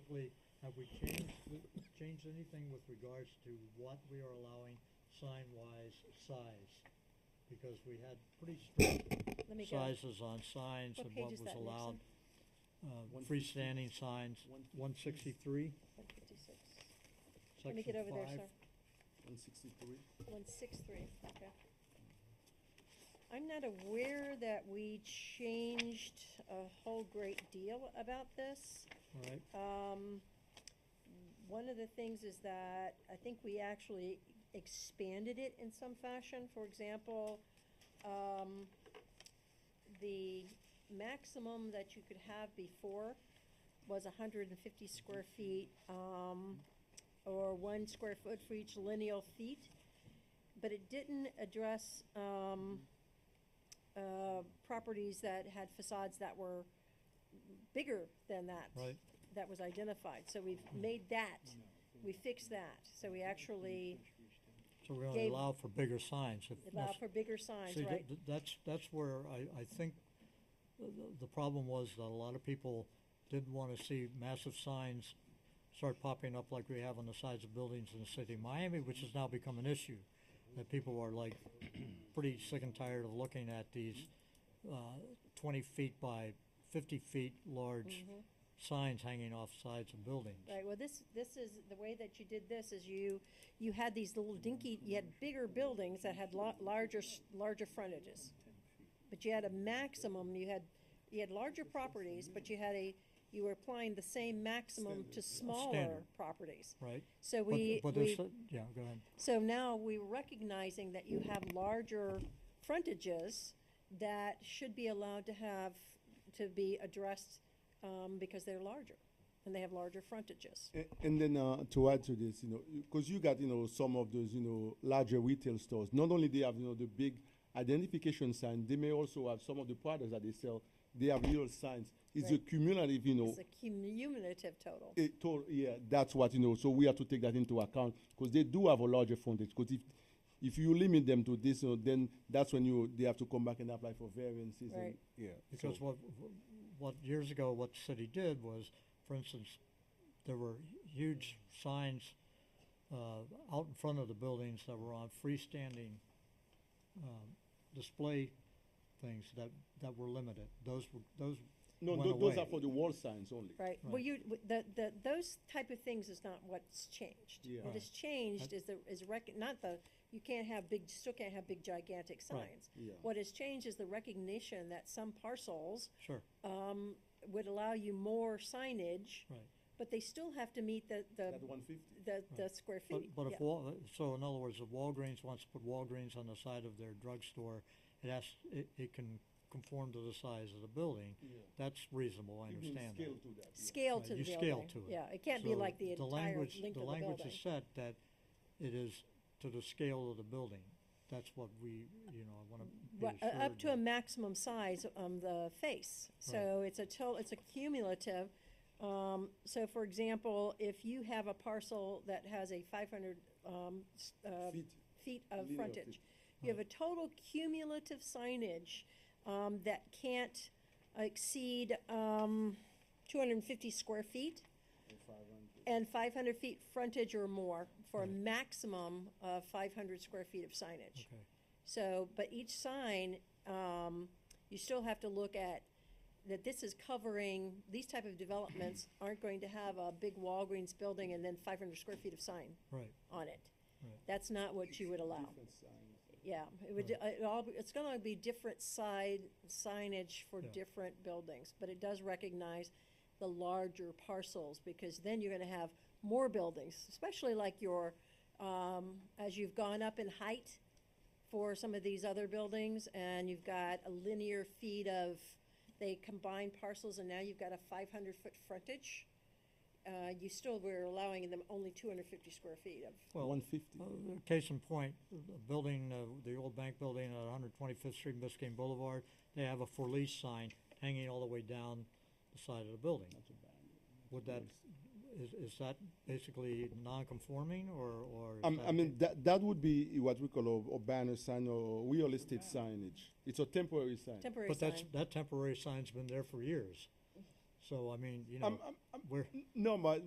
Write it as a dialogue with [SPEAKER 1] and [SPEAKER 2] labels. [SPEAKER 1] specifically, have we changed, the- changed anything with regards to what we are allowing sign-wise size? Because we had pretty strict
[SPEAKER 2] Let me go.
[SPEAKER 1] sizes on signs
[SPEAKER 2] What
[SPEAKER 1] and
[SPEAKER 2] page
[SPEAKER 1] what
[SPEAKER 2] is
[SPEAKER 1] was
[SPEAKER 2] that,
[SPEAKER 1] allowed.
[SPEAKER 2] Nixon?
[SPEAKER 1] Uh,
[SPEAKER 3] One fifty-
[SPEAKER 1] freestanding signs,
[SPEAKER 3] one
[SPEAKER 1] one sixty-three,
[SPEAKER 2] One fifty-six. Let me
[SPEAKER 1] section
[SPEAKER 2] get over there,
[SPEAKER 1] five.
[SPEAKER 2] sir.
[SPEAKER 3] One sixty-three.
[SPEAKER 2] One six three, okay. I'm not aware that we changed a whole great deal about this.
[SPEAKER 1] All right,
[SPEAKER 2] Um, one of the things is that I think we actually expanded it in some fashion. For example, um, the maximum that you could have before was hundred and fifty square feet, um, or one square foot for each lineal feet. But it didn't address, um, uh, properties that had facades that were bigger than that
[SPEAKER 1] right,
[SPEAKER 2] that was identified, so we've made that, we fixed that, so we actually
[SPEAKER 1] so we only
[SPEAKER 2] Gave-
[SPEAKER 1] allow for bigger signs if
[SPEAKER 2] allow
[SPEAKER 1] necessary.
[SPEAKER 2] for bigger signs,
[SPEAKER 1] See,
[SPEAKER 2] right?
[SPEAKER 1] th- th- that's, that's where I, I think the, the- the problem was that a lot of people didn't wanna see massive signs start popping up like we have on the sides of buildings in the city of Miami, which has now become an issue. That people are like pretty sick and tired of looking at these, uh, twenty feet by fifty feet large
[SPEAKER 2] Mhm.
[SPEAKER 1] signs hanging off sides of buildings.
[SPEAKER 2] Right, well, this, this is, the way that you did this is you, you had these little dinky, you had bigger buildings that had lo- larger, s- larger frontages. But you had a maximum, you had, you had larger properties, but you had a, you were applying the same maximum to smaller
[SPEAKER 1] Standard.
[SPEAKER 2] properties.
[SPEAKER 1] Right?
[SPEAKER 2] So
[SPEAKER 1] But-
[SPEAKER 2] we,
[SPEAKER 1] But
[SPEAKER 2] we
[SPEAKER 1] there's, a- yeah, go ahead.
[SPEAKER 2] So now we're recognizing that you have larger frontages that should be allowed to have, to be addressed, um, because they're larger and they have larger frontages.
[SPEAKER 4] A- And then uh, to add to this, you know, because you got you know some of those you know larger retail stores. Not only they have you know the big identification sign, they may also have some of the products that they sell. They have little signs. It's
[SPEAKER 2] Right.
[SPEAKER 4] a cumulative, you know,
[SPEAKER 2] It's a cumulative total.
[SPEAKER 4] a total. Yeah, that's what you know. So we have to take that into account because they do have a larger frontage. Because if if you limit them to this, you know, then that's when you they have to come back and apply for variances. And,
[SPEAKER 2] Right.
[SPEAKER 4] yeah.
[SPEAKER 1] Because
[SPEAKER 4] so-
[SPEAKER 1] what, what years ago, what the city did was, for instance, there were huge signs, uh, out in front of the buildings that were on freestanding, um, display things that, that were limited. Those were, those,
[SPEAKER 4] no,
[SPEAKER 1] went
[SPEAKER 4] tho- those
[SPEAKER 1] away.
[SPEAKER 4] are for the wall signs only.
[SPEAKER 2] Right, well,
[SPEAKER 1] Right.
[SPEAKER 2] you, w- the, the, those type of things is not what's changed.
[SPEAKER 4] Yeah.
[SPEAKER 2] What has changed is the, is rec, not the, you can't have big, still can't have big gigantic
[SPEAKER 1] Right.
[SPEAKER 2] signs.
[SPEAKER 4] Yeah.
[SPEAKER 2] What has changed is the recognition that some parcels,
[SPEAKER 1] sure,
[SPEAKER 2] um, would allow you more signage.
[SPEAKER 1] right.
[SPEAKER 2] But they still have to meet the, the,
[SPEAKER 4] That one fifty.
[SPEAKER 2] the, the square
[SPEAKER 1] But,
[SPEAKER 2] feet.
[SPEAKER 1] but
[SPEAKER 2] yeah.
[SPEAKER 1] if Wal, so in other words, if Walgreens wants to put Walgreens on the side of their drugstore, it has, it, it can conform to the size of the building.
[SPEAKER 4] Yeah.
[SPEAKER 1] That's reasonable, I
[SPEAKER 4] You can
[SPEAKER 1] understand that.
[SPEAKER 4] scale to that. yeah.
[SPEAKER 2] Scale
[SPEAKER 1] Right,
[SPEAKER 2] to the
[SPEAKER 1] you
[SPEAKER 2] building.
[SPEAKER 1] scale to it.
[SPEAKER 2] Yeah, it can't be
[SPEAKER 1] So
[SPEAKER 2] like the entire
[SPEAKER 1] language-
[SPEAKER 2] length of the
[SPEAKER 1] The language
[SPEAKER 2] building.
[SPEAKER 1] is set that it is to the scale of the building. That's what we, you know, I wanna be
[SPEAKER 2] Ri- uh,
[SPEAKER 1] assured
[SPEAKER 2] Up to a
[SPEAKER 1] that-
[SPEAKER 2] maximum size on the face. So it's a total, it's a cumulative. Um, so for example, if you have a parcel that has a five hundred, um, s- uh,
[SPEAKER 4] Feet.
[SPEAKER 2] feet of
[SPEAKER 4] Linear
[SPEAKER 2] frontage.
[SPEAKER 4] feet.
[SPEAKER 2] You have a total cumulative signage, um, that can't exceed, um, two hundred and fifty square feet. And five hundred feet frontage or more for a
[SPEAKER 1] Right.
[SPEAKER 2] maximum of five hundred square feet of signage.
[SPEAKER 1] Okay,
[SPEAKER 2] So, but each sign, um, you still have to look at that this is covering, these type of developments aren't going to have a big Walgreens building and then five hundred square feet of sign
[SPEAKER 1] right,
[SPEAKER 2] on it.
[SPEAKER 1] Right.
[SPEAKER 2] That's not what you would allow.
[SPEAKER 4] Different signs.
[SPEAKER 2] Yeah, it would, it all, it's gonna be different side signage for
[SPEAKER 1] Yeah.
[SPEAKER 2] different buildings, but it does recognize the larger parcels, because then you're gonna have more buildings, especially like your, um, as you've gone up in height for some of these other buildings, and you've got a linear feet of, they combine parcels, and now you've got a five hundred foot frontage. Uh, you still were allowing them only two hundred fifty square feet of,
[SPEAKER 1] Well,
[SPEAKER 4] One fifty.
[SPEAKER 1] Uh, Case in point, the building, uh, the old bank building at 125th Street and Biscayne Boulevard, they have a for lease sign hanging all the way down the side of the building. Would that, is, is that basically non-conforming or, or? is
[SPEAKER 4] Um,
[SPEAKER 1] that-
[SPEAKER 4] I mean, that, that would be what we call a, a banner sign or real estate signage. It's a temporary sign.
[SPEAKER 2] temporary sign.
[SPEAKER 1] But that's, that temporary sign's been there for years. So, I mean, you know,
[SPEAKER 4] I'm, I'm, Um,
[SPEAKER 1] we're.
[SPEAKER 4] no, but,